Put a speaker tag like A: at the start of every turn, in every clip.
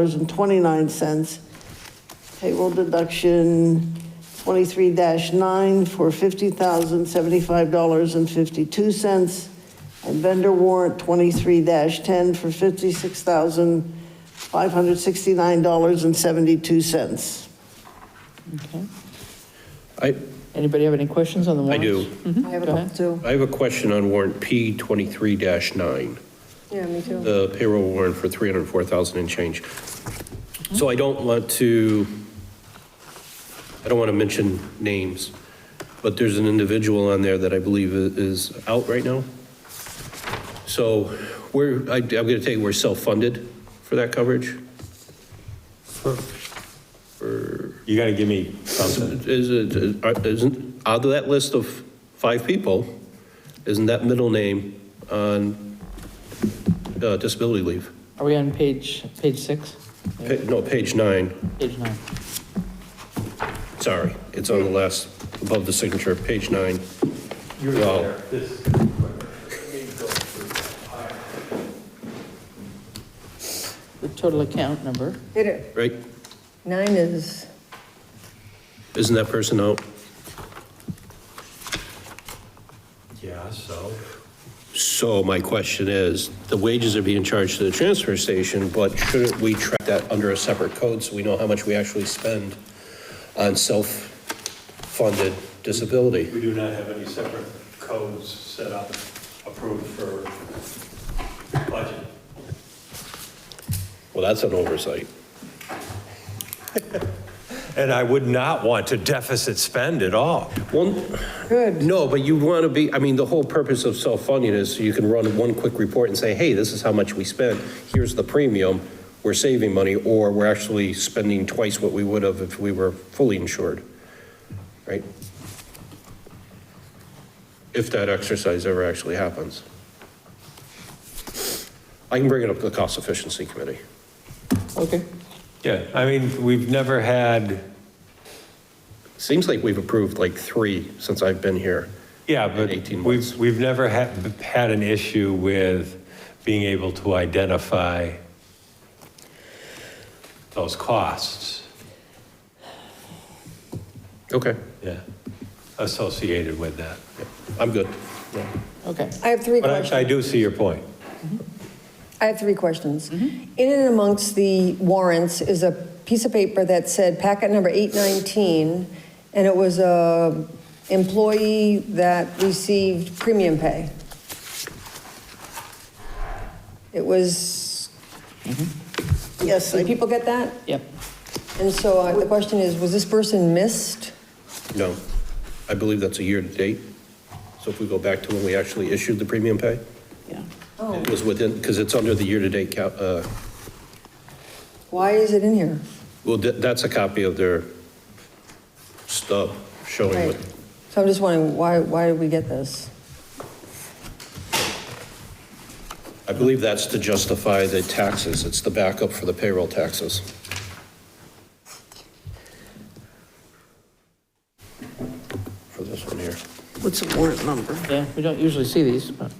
A: $304,288.29. Payroll deduction 23-9 for $50,075.52. And vendor warrant 23-10 for $56,569.72.
B: Okay.
C: I,
B: Anybody have any questions on the
C: I
B: warrants?
C: do.
D: I have a
B: Go
D: couple
B: ahead.
D: too.
C: I have a question on warrant P twenty-three nine,
D: Yeah, me too.
C: the payroll warrant for three hundred and four thousand and change. So I don't want to, I don't want to mention names, but there's an individual on there that I believe i- is out right now. So we're, I, I'm gonna take, we're self-funded for that coverage?
E: You gotta give me something.
C: Is it, are- isn't, out of that list of five people, isn't that middle name on uh, disability leave?
B: Are we on page, page six?
C: Pa- No, page nine,
B: Page nine.
C: sorry, it's on the last, above the signature, page nine. Well,
B: The total account number.
D: Did it,
C: Right,
D: nine is,
C: isn't that person out?
E: Yeah, so.
C: So my question is, the wages are being charged to the transfer station, but shouldn't we track that under a separate code so we know how much we actually spend on self-funded disability?
F: We do not have any separate codes set up, approved for budget.
C: Well, that's an oversight.
E: And I would not want to deficit spend at all.
C: Well,
D: good.
C: no, but you want to be, I mean, the whole purpose of self-funding is so you can run one quick report and say, hey, this is how much we spent, here's the premium, we're saving money, or we're actually spending twice what we would have if we were fully insured, right? If that exercise ever actually happens. I can bring it up to the cost efficiency committee.
B: Okay.
E: Yeah, I mean, we've never had,
C: Seems like we've approved like three since I've been here.
E: yeah,
C: In
E: but
C: 18 months.
E: we've, we've never had, had an issue with being able to identify those costs,
C: Okay,
E: yeah, associated with that.
C: I'm good.
B: Okay.
D: I have three
E: But I- I
D: questions.
E: do see your point.
D: I have three questions. In and amongst the warrants is a piece of paper that said packet number 819, and it was a employee that received premium pay. It was,
A: Yes,
D: did
A: I
D: people get that?
B: Yep.
D: And so uh, the question is, was this person missed?
C: No, I believe that's a year-to-date. So if we go back to when we actually issued the premium pay,
A: yeah.
C: it was within, because it's under the year-to-date, ca- uh,
D: Why is it in here?
C: well, tha- that's a copy of their stub showing
D: Right.
C: what
D: So I'm just wondering, why, why did we get this?
C: I believe that's to justify the taxes. It's the backup for the payroll taxes. For this one here.
A: What's the warrant number?
B: Yeah, we don't usually see these, but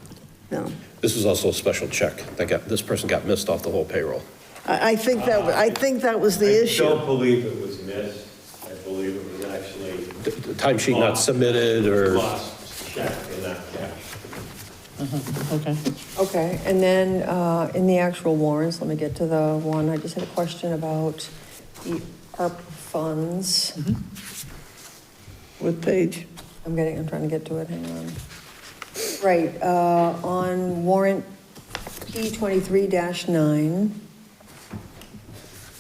A: No.
C: This is also a special check. That got, this person got missed off the whole payroll.
A: I, I think that, I think that was the issue.
F: I don't believe it was missed, I believe it was actually
C: The- the Timesheet not submitted or.
F: lost check and not cash.
B: okay.
D: Okay, and then uh, in the actual warrants, let me get to the one, I just had a question about the ARP funds.
A: What page?
D: I'm getting, I'm trying to get to it, hang on. Right, uh, on warrant E P23-9,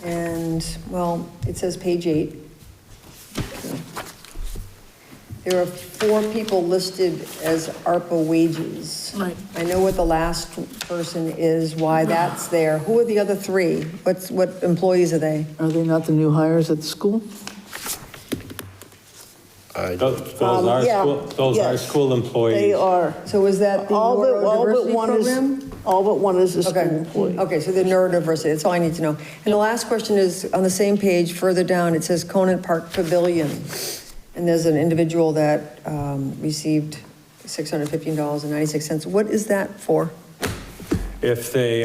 D: and, well, it says page eight. There are four people listed as ARPA wages.
B: Right.
D: I know what the last person is, why that's there. Who are the other three? What's, what employees are they?
B: Are they not the new hires at the school?
C: I-
E: Those those
A: Um,
E: are,
A: yeah,
E: school- those are
A: yes.
E: school employees.
A: They are.
D: So is that the
A: All but, all but
D: neurodiversity
A: one is,
D: program?
A: all but one is a school
D: Okay,
A: employee.
D: okay, so the neurodiversity, that's all I need to know. And the last question is, on the same page, further down, it says Conant Park Pavilion. And there's an individual that um, received $615.96. What is that for?
E: if they